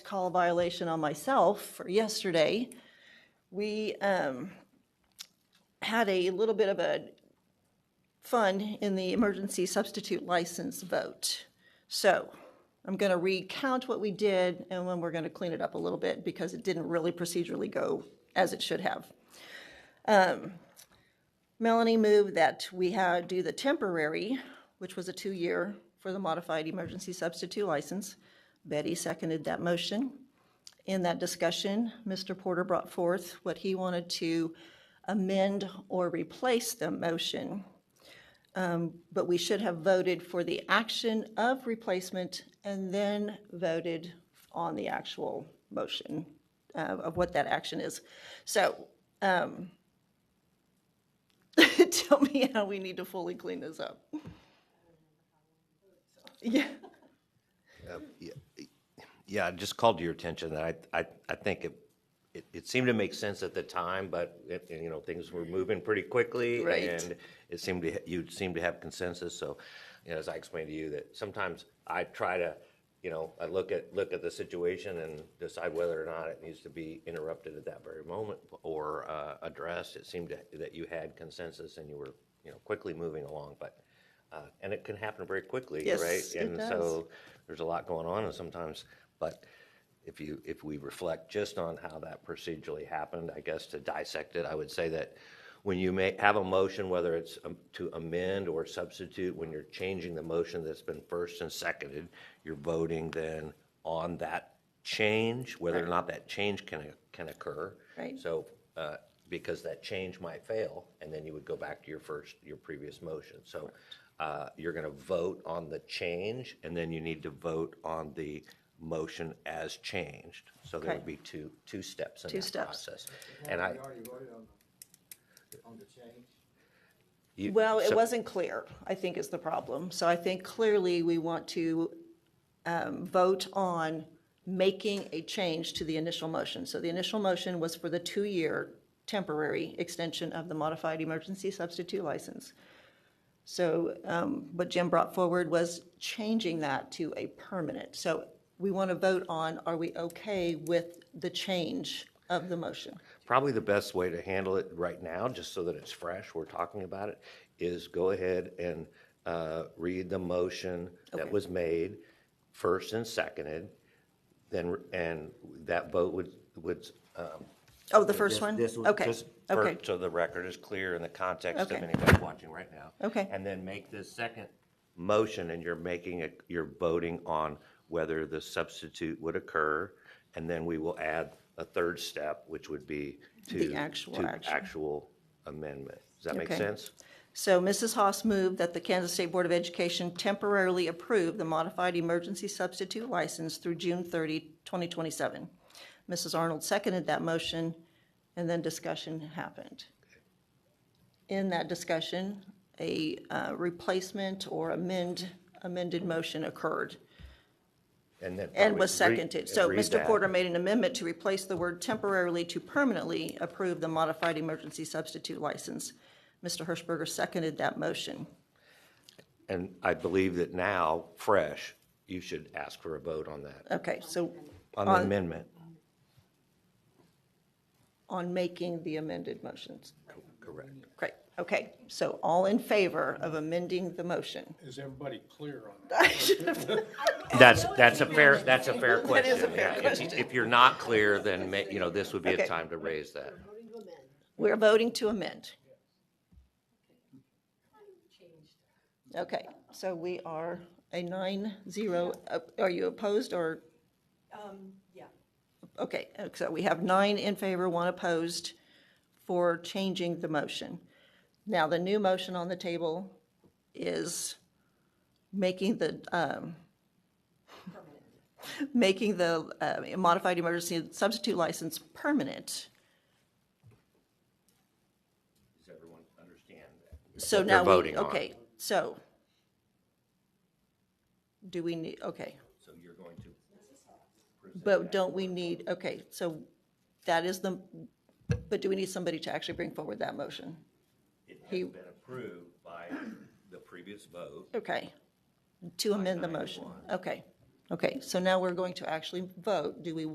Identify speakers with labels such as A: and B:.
A: call violation on myself for yesterday. We um, had a little bit of a fun in the emergency substitute license vote. So I'm going to recount what we did and then we're going to clean it up a little bit because it didn't really procedurally go as it should have. Melanie moved that we had, do the temporary, which was a two-year for the modified emergency substitute license. Betty seconded that motion. In that discussion, Mr. Porter brought forth what he wanted to amend or replace the motion. Um, But we should have voted for the action of replacement and then voted on the actual motion uh, of what that action is. So tell me how we need to fully clean this up. Yeah,
B: Yeah, I just called to your attention that I, I, I think it, it, it seemed to make sense at the time, but, it- you know, things were moving pretty quickly.
A: Right.
B: And it seemed to, you seemed to have consensus, so, you know, as I explained to you, that sometimes I try to, you know, I look at, look at the situation and decide whether or not it needs to be interrupted at that very moment or, uh, addressed. It seemed to- that you had consensus and you were, you know, quickly moving along, but, uh, and it can happen very quickly,
A: Yes,
B: right?
A: it
B: And
A: does.
B: so there's a lot going on and sometimes, but if you, if we reflect just on how that procedurally happened, I guess to dissect it, I would say that when you may have a motion, whether it's um, to amend or substitute, when you're changing the motion that's been first and seconded, you're voting then on that change, whether or not that change can, can occur.
A: Right.
B: So, uh, because that change might fail, and then you would go back to your first, your previous motion. So uh, you're going to vote on the change, and then you need to vote on the motion as changed. So there would
A: Okay.
B: be two, two steps in
A: Two
B: that
A: steps.
B: process. And I,
C: We already voted on the, on the change.
B: you-
A: well, it
B: so-
A: wasn't clear, I think is the problem. So I think clearly we want to um, vote on making a change to the initial motion. So the initial motion was for the two-year temporary extension of the modified emergency substitute license. So um, what Jim brought forward was changing that to a permanent. So we want to vote on, are we okay with the change of the motion?
B: Probably the best way to handle it right now, just so that it's fresh, we're talking about it, is go ahead and uh, read the motion that was made, first and seconded, then, and that vote would, would. um,
A: Oh, the first one?
B: this was
A: Okay,
B: just for-
A: okay,
B: So the record is clear in the context of
A: Okay.
B: anybody watching right now.
A: Okay.
B: And then make this second motion, and you're making, a- you're voting on whether the substitute would occur, and then we will add a third step, which would be to.
A: The actual
B: to
A: action.
B: actual amendment. Does that make
A: Okay.
B: sense?
A: so Mrs. Haas moved that the Kansas State Board of Education temporarily approve the modified emergency substitute license through June 30, 2027. Mrs. Arnold seconded that motion, and then discussion happened. In that discussion, a uh, replacement or amend, amended motion occurred
B: And then.
A: and was
B: probably re-
A: seconded. So
B: read
A: Mr.
B: that.
A: Porter made an amendment to replace the word temporarily to permanently approve the modified emergency substitute license. Mr. Hirschberger seconded that motion.
B: And I believe that now, fresh, you should ask for a vote on that,
A: Okay, so
B: on the amendment.
A: on making the amended motions.
B: Correct.
A: Great, okay. So all in favor of amending the motion?
D: Is everybody clear on that?
B: That's, that's a fair, that's a fair question.
A: a fair
B: yeah. If- If you're not clear, then, ma- you know, this would be
A: Okay.
B: a time to raise that.
A: We're voting to amend. Okay, so we are a nine zero, uh, are you opposed or?
E: yeah.
A: Okay, uh, so we have nine in favor, one opposed for changing the motion. Now, the new motion on the table is making the, um, making the uh, modified emergency substitute license permanent.
B: Does everyone understand that?
A: So
B: That they're
A: now we,
B: voting on.
A: okay, so. Do we need, okay,
B: So you're going to,
A: but don't we need, okay, so that is the, but do we need somebody to actually bring forward that motion?
B: it
A: He-
B: has been approved by the previous vote.
A: Okay, to amend the motion, okay, Okay, so now we're going to actually vote. Do we